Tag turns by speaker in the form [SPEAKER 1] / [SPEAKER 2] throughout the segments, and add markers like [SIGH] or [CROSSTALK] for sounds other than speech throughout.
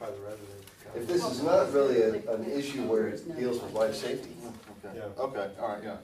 [SPEAKER 1] rather than.
[SPEAKER 2] If this is not really a- an issue where it deals with life safety,
[SPEAKER 1] Yeah,
[SPEAKER 3] Okay, all right, yeah.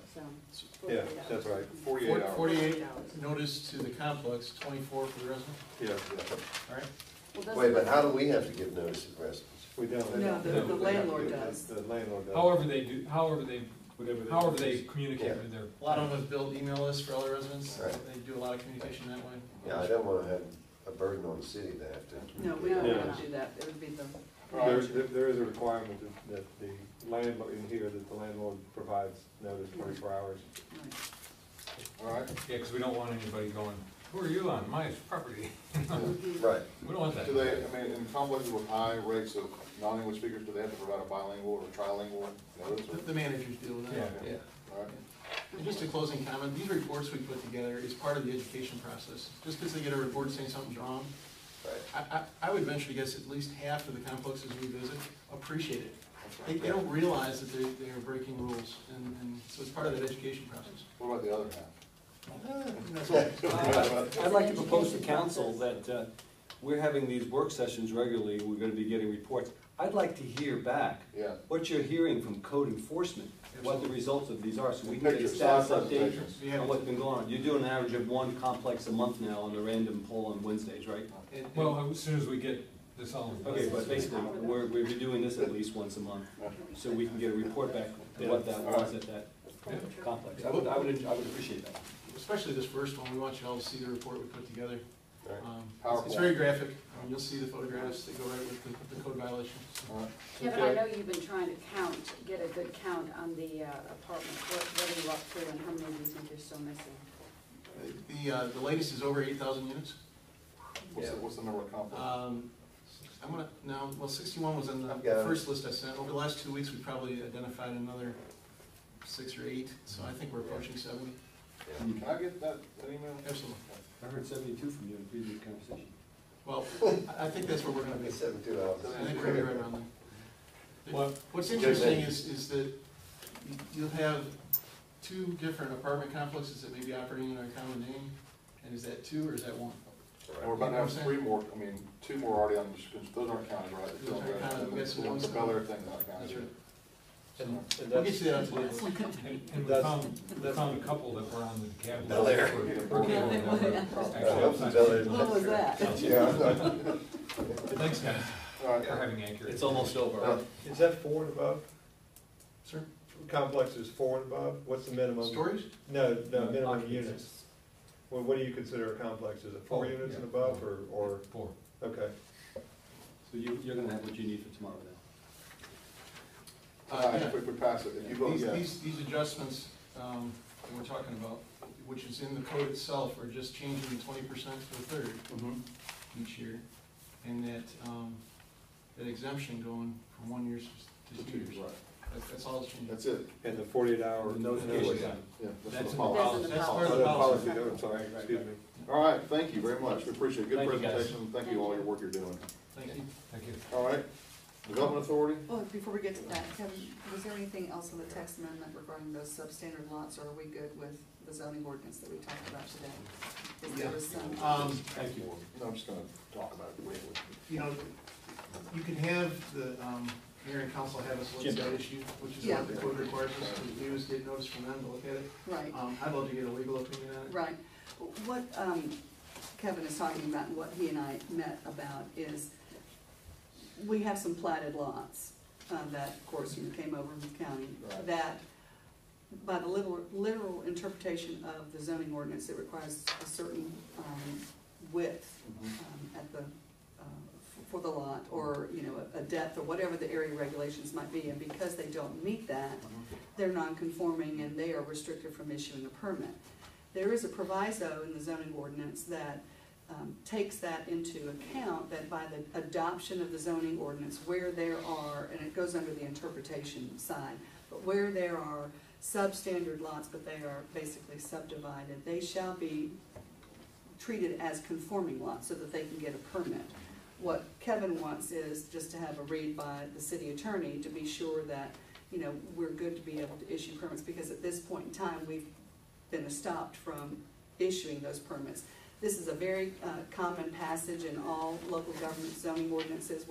[SPEAKER 1] yeah, that's right,
[SPEAKER 3] Forty-eight hours.
[SPEAKER 4] Forty-eight notice to the complex, twenty-four for the resident,
[SPEAKER 1] yeah,
[SPEAKER 4] all right?
[SPEAKER 2] wait, but how do we have to give notice to the residents?
[SPEAKER 1] we don't.
[SPEAKER 5] No, the- the
[SPEAKER 1] they have to
[SPEAKER 5] landlord
[SPEAKER 1] do it.
[SPEAKER 5] does.
[SPEAKER 1] The landlord does.
[SPEAKER 6] However they do, however they,
[SPEAKER 1] Whatever they-
[SPEAKER 6] however they communicate with their.
[SPEAKER 4] A lot of them have built email lists for other residents,
[SPEAKER 2] Right.
[SPEAKER 4] they do a lot of communication that way.
[SPEAKER 2] Yeah, I don't wanna have a burden on the city to have to.
[SPEAKER 5] No, we don't
[SPEAKER 1] Yeah.
[SPEAKER 5] want to do that, it would be the,
[SPEAKER 1] There's, there- there is a requirement that- that the landlord, in here, that the landlord provides notice twenty-four hours.
[SPEAKER 5] right.
[SPEAKER 3] All right,
[SPEAKER 6] Yeah, because we don't want anybody going, who are you on my property? [LAUGHS]
[SPEAKER 2] Right,
[SPEAKER 6] We don't want that.
[SPEAKER 3] do they, I mean, in conflict with high rates of non-English speakers, do they have to provide a bilingual or trilingual notice?
[SPEAKER 4] The- The managers deal with
[SPEAKER 6] Yeah,
[SPEAKER 4] that.
[SPEAKER 6] yeah.
[SPEAKER 3] All right,
[SPEAKER 4] And just a closing comment, these reports we put together is part of the education process. Just because they get a report saying something's wrong,
[SPEAKER 2] right.
[SPEAKER 4] I, I, I would venture to guess at least half of the complexes we visit appreciate it.
[SPEAKER 3] that's
[SPEAKER 4] They,
[SPEAKER 3] right.
[SPEAKER 4] they don't realize that they're, they're breaking rules, and, and so it's part of that education process.
[SPEAKER 3] What about the other half?
[SPEAKER 4] That's all.
[SPEAKER 7] [LAUGHS] I'd like to propose to council that uh, we're having these work sessions regularly, we're gonna be getting reports. I'd like to hear back
[SPEAKER 3] Yeah.
[SPEAKER 7] what you're hearing from code enforcement, what the results of these are, so we can get a
[SPEAKER 3] Pictures,
[SPEAKER 7] status
[SPEAKER 3] slide
[SPEAKER 7] update
[SPEAKER 3] presentations.
[SPEAKER 4] Yeah.
[SPEAKER 7] on what's been going on. You're doing an average of one complex a month now on the random poll on Wednesdays, right?
[SPEAKER 4] And- and-
[SPEAKER 6] Well, uh, as soon as we get this all. in place.
[SPEAKER 7] Okay, but basically, we're, we're doing this at least once a month, so we can get a report back to what that was at that complex. I would, I would, I would appreciate that.
[SPEAKER 4] Especially this first one, we want you all to see the report we put together.
[SPEAKER 1] Right.
[SPEAKER 4] Um, it's- It's
[SPEAKER 3] PowerPoint.
[SPEAKER 4] very graphic, Um, you'll see the photographs that go right with the- the code violations.
[SPEAKER 3] All right.
[SPEAKER 8] Kevin, I know you've been trying to count, get a good count on the uh, apartments, what, what are you up to and how many do you think you're still missing?
[SPEAKER 4] The, uh, the latest is over eight thousand units.
[SPEAKER 3] What's the, what's the number of complexes?
[SPEAKER 4] Um, I'm gonna, no, well, sixty-one was on the
[SPEAKER 2] I've got it.
[SPEAKER 4] first list I sent. Over the last two weeks, we probably identified another six or eight, so I think we're approaching seventy.
[SPEAKER 3] Can I get that, that email?
[SPEAKER 4] Absolutely.
[SPEAKER 7] I heard seventy-two from you in previous conversation.
[SPEAKER 4] Well, I I think that's where we're gonna be.
[SPEAKER 2] Seventy-two hours.
[SPEAKER 4] I think we're gonna be right around there.
[SPEAKER 6] Well-
[SPEAKER 4] What's interesting is, is that you'll have two different apartment complexes that may be operating under a common name, and is that two or is that one?
[SPEAKER 3] And we're about to have three more, I mean, two more already on, the- those aren't counted, right?
[SPEAKER 4] Those aren't counted. We got some ones-
[SPEAKER 3] The Bel Air thing's not
[SPEAKER 4] That's
[SPEAKER 3] counted.
[SPEAKER 4] right.
[SPEAKER 7] And and
[SPEAKER 4] We'll
[SPEAKER 7] that's-
[SPEAKER 4] get you that on the
[SPEAKER 6] And and we found, we found a couple that were on the cab.
[SPEAKER 2] Bel Air.
[SPEAKER 5] What was that?
[SPEAKER 2] Yeah, I'm not-
[SPEAKER 6] Thanks, guys,
[SPEAKER 3] All right.
[SPEAKER 6] for having accurate.
[SPEAKER 7] It's almost over.
[SPEAKER 1] Is that four and above?
[SPEAKER 4] Sir,
[SPEAKER 1] Complex is four and above? What's the minimum?
[SPEAKER 4] storage?
[SPEAKER 1] No, no,
[SPEAKER 7] No,
[SPEAKER 1] minimum
[SPEAKER 7] Mm-hmm. occupancy.
[SPEAKER 1] units. Well, what do you consider a complex? Is it four
[SPEAKER 6] Oh,
[SPEAKER 1] units
[SPEAKER 6] yeah.
[SPEAKER 1] and above, or, or,
[SPEAKER 6] Four.
[SPEAKER 1] okay.
[SPEAKER 7] So you, you're gonna have what you need for tomorrow then?
[SPEAKER 3] Uh,
[SPEAKER 4] Uh, yeah.
[SPEAKER 3] if we- if we pass it, if uh, you vote
[SPEAKER 4] These,
[SPEAKER 3] yes,
[SPEAKER 4] these, these adjustments, um, that we're talking about, which is in the code itself, are just changing the twenty percent to a third
[SPEAKER 3] Mm-hmm.
[SPEAKER 4] each year. And that, um, that exemption going from one year to two years.
[SPEAKER 3] right,
[SPEAKER 4] That's, that's all it's changing.
[SPEAKER 3] that's it,
[SPEAKER 1] And the forty-eight hour.
[SPEAKER 7] Notification time.
[SPEAKER 3] yeah, that's
[SPEAKER 7] That's
[SPEAKER 3] the
[SPEAKER 7] in
[SPEAKER 3] policy.
[SPEAKER 8] That's in the
[SPEAKER 4] That's
[SPEAKER 1] Oh,
[SPEAKER 4] part of
[SPEAKER 1] the
[SPEAKER 4] the
[SPEAKER 1] policy,
[SPEAKER 4] policy.
[SPEAKER 1] no, I'm sorry,
[SPEAKER 7] Right, right,
[SPEAKER 1] excuse me.
[SPEAKER 3] All right, thank you very much, we appreciate it, good
[SPEAKER 7] Thank you, guys.
[SPEAKER 3] presentation, thank you all your work you're doing.
[SPEAKER 4] Thank you.
[SPEAKER 6] Thank you.
[SPEAKER 3] All right, Development Authority,
[SPEAKER 5] Well, Oh, before we get to that, Kevin, was there anything else in the text amendment regarding those substandard lots, or are we good with the zoning ordinance that we talked about today? Is there was some?
[SPEAKER 4] Um,
[SPEAKER 7] Thank you.
[SPEAKER 3] No, I'm just gonna talk about it briefly.
[SPEAKER 4] you know, you can have the, um, mayor and council have us look at that issue, which is
[SPEAKER 5] Yeah.
[SPEAKER 4] what the code requires us to do, is get notice from them to look at it.
[SPEAKER 5] Right,
[SPEAKER 4] Um, I'd love to get a legal opinion on it.
[SPEAKER 5] right. What um, Kevin is talking about, and what he and I met about, is we have some platted lots uh, that, of course, you came over from the county,
[SPEAKER 3] Right.
[SPEAKER 5] that by the literal, literal interpretation of the zoning ordinance, it requires a certain um, width
[SPEAKER 7] Mm-hmm.
[SPEAKER 5] um, at the, uh, f- for the lot, or, you know, a a depth, or whatever the area regulations might be, and because they don't meet that, they're non-conforming and they are restricted from issuing a permit. There is a proviso in the zoning ordinance that um, takes that into account, that by the adoption of the zoning ordinance, where there are, and it goes under the interpretation side, but where there are substandard lots, but they are basically subdivided, they shall be treated as conforming lots so that they can get a permit. What Kevin wants is just to have a read by the city attorney to be sure that, you know, we're good to be able to issue permits, because at this point in time, we've been stopped from issuing those permits. This is a very uh, common passage in all local government zoning ordinances